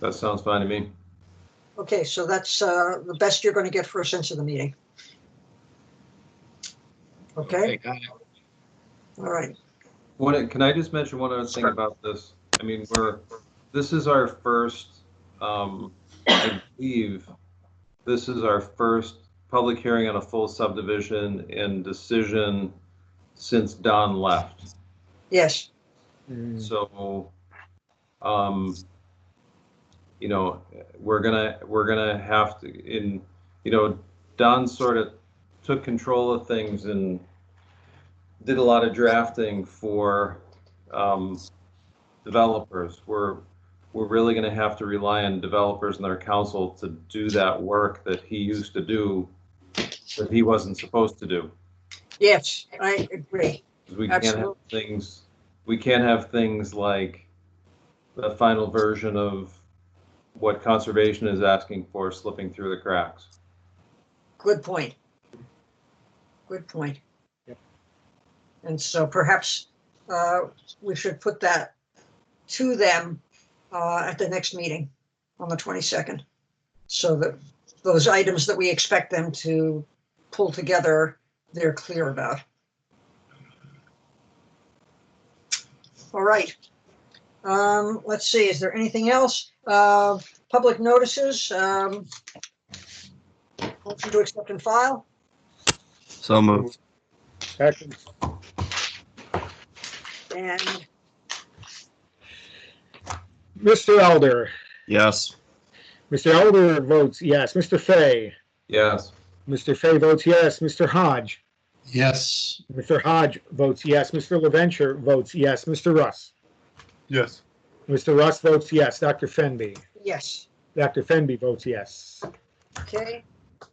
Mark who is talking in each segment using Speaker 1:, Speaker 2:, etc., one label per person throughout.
Speaker 1: That sounds fine to me.
Speaker 2: Okay, so that's uh, the best you're going to get for a sense of the meeting. Okay,
Speaker 3: got it.
Speaker 2: all right.
Speaker 1: What, can I just mention one other thing
Speaker 3: Sure.
Speaker 1: about this? I mean, we're, this is our first, um, I believe, this is our first public hearing on a full subdivision and decision since Don left.
Speaker 2: Yes,
Speaker 1: So, um, you know, we're gonna, we're gonna have to, in, you know, Don sort of took control of things and did a lot of drafting for, um, developers. We're, we're really gonna have to rely on developers and their counsel to do that work that he used to do, that he wasn't supposed to do.
Speaker 2: yes, I agree.
Speaker 1: 'Cause we can't have
Speaker 2: Absolutely.
Speaker 1: things, we can't have things like the final version of what conservation is asking for slipping through the cracks.
Speaker 2: Good point. Good point.
Speaker 3: Yep.
Speaker 2: And so perhaps uh, we should put that to them uh, at the next meeting on the 22nd. So that those items that we expect them to pull together, they're clear about. All right. Um, Let's see, is there anything else? Uh, Public notices? um, Motion to accept and file?
Speaker 4: So moved.
Speaker 3: Second.
Speaker 2: And
Speaker 3: Mr. Elder,
Speaker 4: Yes.
Speaker 3: Mr. Elder votes yes. Mr. Fay,
Speaker 1: Yes,
Speaker 3: Mr. Fay votes yes. Mr. Hodge,
Speaker 5: Yes.
Speaker 3: Mr. Hodge votes yes. Mr. LaVenture votes yes. Mr. Russ,
Speaker 5: Yes.
Speaker 3: Mr. Russ votes yes. Dr. Fenby,
Speaker 2: yes,
Speaker 3: Dr. Fenby votes yes.
Speaker 2: okay.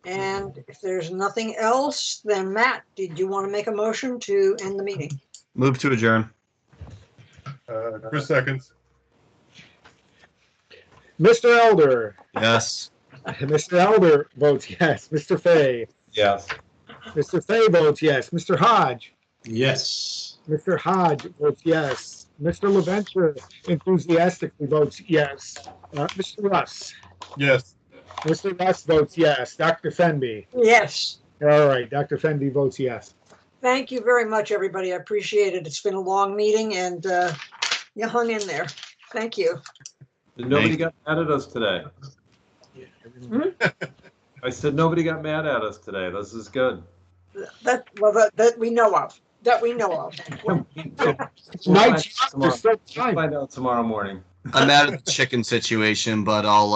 Speaker 2: And if there's nothing else, then Matt, did you want to make a motion to end the meeting?
Speaker 4: Move to adjourn.
Speaker 5: Uh, Chris seconds.
Speaker 3: Mr. Elder,
Speaker 4: Yes.
Speaker 3: Mr. Elder votes yes. Mr. Fay,
Speaker 1: yes.
Speaker 3: Mr. Fay votes yes. Mr. Hodge,
Speaker 5: Yes.
Speaker 3: Mr. Hodge votes yes. Mr. LaVenture enthusiastically votes yes. Uh, Mr. Russ,
Speaker 5: Yes.
Speaker 3: Mr. Russ votes yes. Dr. Fenby.
Speaker 2: Yes.
Speaker 3: All right, Dr. Fenby votes yes.
Speaker 2: Thank you very much, everybody. I appreciate it. It's been a long meeting and uh, you hung in there. Thank you.
Speaker 1: Nobody
Speaker 4: Thank-
Speaker 1: got mad at us today. I said, nobody got mad at us today. This is good.
Speaker 2: That, well, that, that we know of, that we know of.
Speaker 1: We'll find
Speaker 3: Night
Speaker 1: out
Speaker 3: shift
Speaker 1: tomorrow-
Speaker 3: is so
Speaker 1: we'll
Speaker 3: time.
Speaker 1: find out tomorrow morning.
Speaker 4: I'm out of the chicken situation, but I'll, uh,